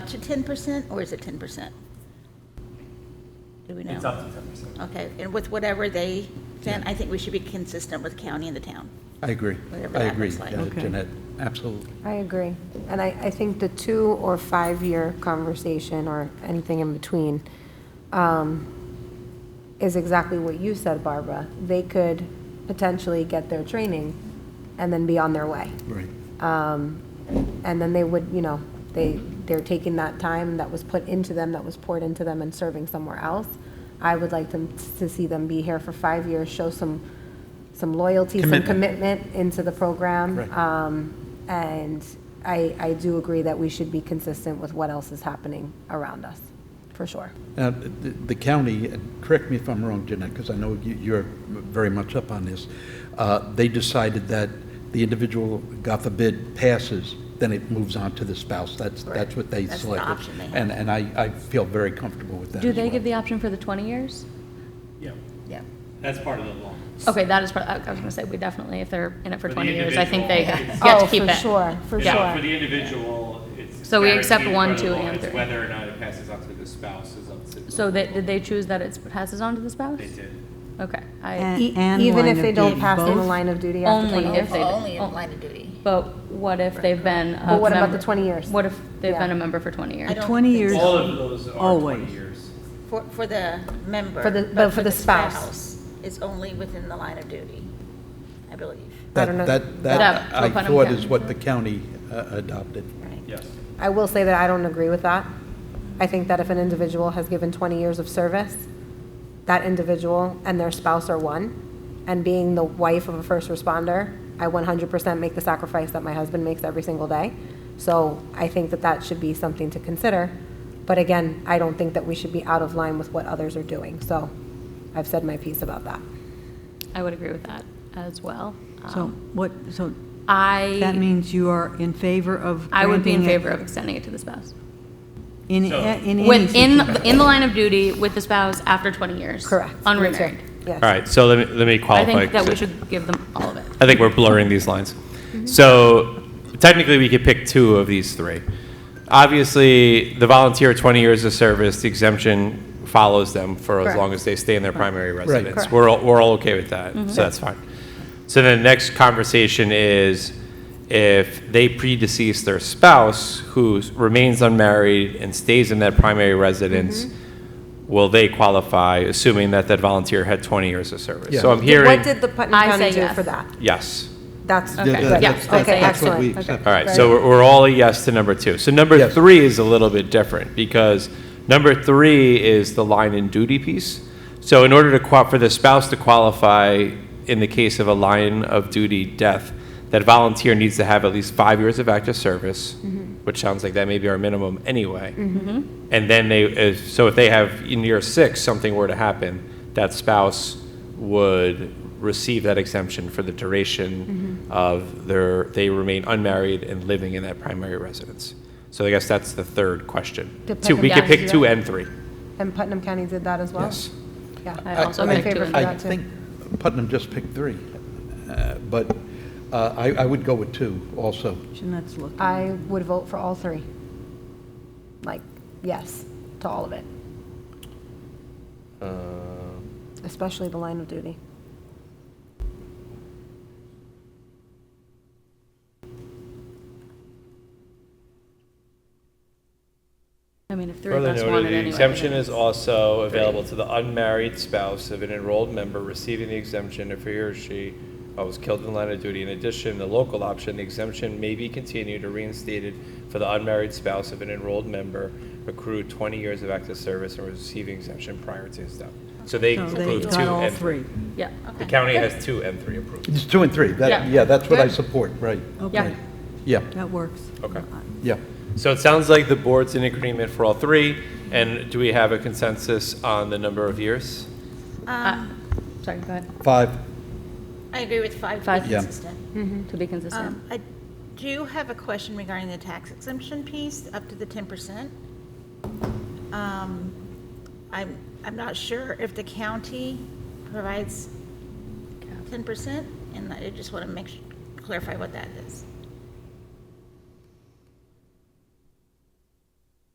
to 10% or is it 10%? Do we know? It's up to ten percent. Okay, and with whatever they send, I think we should be consistent with county and the town. I agree. Whatever I that agree, looks like. yeah, Okay. Jeanette, absolutely. I agree. And I, I think the two or five-year conversation or anything in between um, is exactly what you said, Barbara. They could potentially get their training and then be on their way. Right. Um, And then they would, you know, they, they're taking that time that was put into them, that was poured into them and serving somewhere else. I would like them to see them be here for five years, show some, some loyalty, some commitment into the program. Right. Um, and I, I do agree that we should be consistent with what else is happening around us, for sure. Now, the the county, and correct me if I'm wrong, Jeanette, because I know you- you're very much up on this, uh, they decided that the individual, God forbid, passes, then it moves on to the spouse. That's, that's what they That's the selected. option they have. And, and I, I feel very comfortable with that Do as they well. give the option for the 20 years? Yeah, Yeah. that's part of the law. Okay, that is, pro- I I was going to say, we definitely, if they're in it for For the 20 years, I think they individual, get it's- to keep it. Oh, for sure, for Yeah, sure. For the individual, it's. So we accept guaranteed one, by the two, law. and It's three. Whether or not it passes on to the spouse is up to. the So they, law. did they choose that it passes on to the spouse? They did. Okay, I, And E- and Even line if of they don't duty, pass in the both? line of duty after Only 20 years. if they- Only oh. in line of duty. but what if they've been a But what about member- the 20 years? What if they've been Yeah. a member for 20 years? I don't Twenty think years. All of those are Always. twenty years. For, for the member. For the- but for the spouse. It's only within the line of duty, I believe, I don't know. That, that, That- that to I Putnam thought County. is what the county uh, adopted. right? Yes. I will say that I don't agree with that. I think that if an individual has given 20 years of service, that individual and their spouse are one. And being the wife of a first responder, I 100% make the sacrifice that my husband makes every single day. So I think that that should be something to consider. But again, I don't think that we should be out of line with what others are doing. So I've said my piece about that. I would agree with that as well. So Um, what, so that I, means you are in favor of I would be in granting it favor of extending it to the spouse. In, So- in any Within, situation. in the line of duty with the spouse after 20 years. Correct. Unremarried. Yes. All right, so let me, let me I qualify. think that we 'cause should give them all of it. I think we're blurring these lines. Mm-hmm. So technically, we could pick two of these three. Obviously, the volunteer, 20 years of service, the exemption follows them for as Correct. long as they stay in their primary residence. Correct. Mm-hmm. We're, all- we're all okay with that, so that's fine. So then the next conversation is if they predecease their spouse who remains unmarried and stays in that primary residence, Mm-hmm. will they qualify, assuming that that volunteer had 20 years of service? Yeah. So I'm hearing. What did the Putnam I County say do yes. for that? Yes. That's Okay. That- Yeah, good. that's- I'll that's- say That's what we excellent. Okay. accept. All right, so we're, we're all a yes to number two. So number Yes. three is a little bit different because number three is the line and duty piece. So in order to qua, for the spouse to qualify in the case of a line of duty death, that volunteer needs to have at least five years of active service, which sounds like that may be our minimum anyway. And then they, if- so if they have in year six, something were to happen, that spouse would receive that exemption for the duration Mm-hmm. of their, they remain unmarried and living in that primary residence. So I guess that's the third question. Depend- Two, we could Yeah. pick two and three. And Putnam County did that as well? Yes. Yeah. I I- also I I'm in think favor two of and that. I too. think Putnam just picked three, uh, but uh, I, I would go with two also. Jeanette's looking. I would vote for all three. Like, yes, to all of it, especially the line of duty. I mean, if three of Further us want noted, it the anyway. exemption then is it's- also available to the unmarried spouse of an enrolled member receiving the exemption if he or she uh, was killed in the line of duty. In addition, the local option, the exemption may be continued or reinstated for the unmarried spouse of an enrolled member accrued 20 years of active service and receiving exemption prior to his death. So they So they approved two got all and three. three. Yeah. oh, The county has two and three approved. It's two and three, Yeah. that, yeah, that's what I Good. support, right, Okay, yeah, that works. Okay. yeah. So it sounds like the board's in agreement for all three. And do we have a consensus on the number of years? Uh, Sorry, go ahead. Five, I agree with five to Five. be Yeah. consistent. To be consistent. Um, I do have a question regarding the tax exemption piece, up to the 10%. Um, I'm, I'm not sure if the county provides 10%, and I just want to make, su- clarify what that is.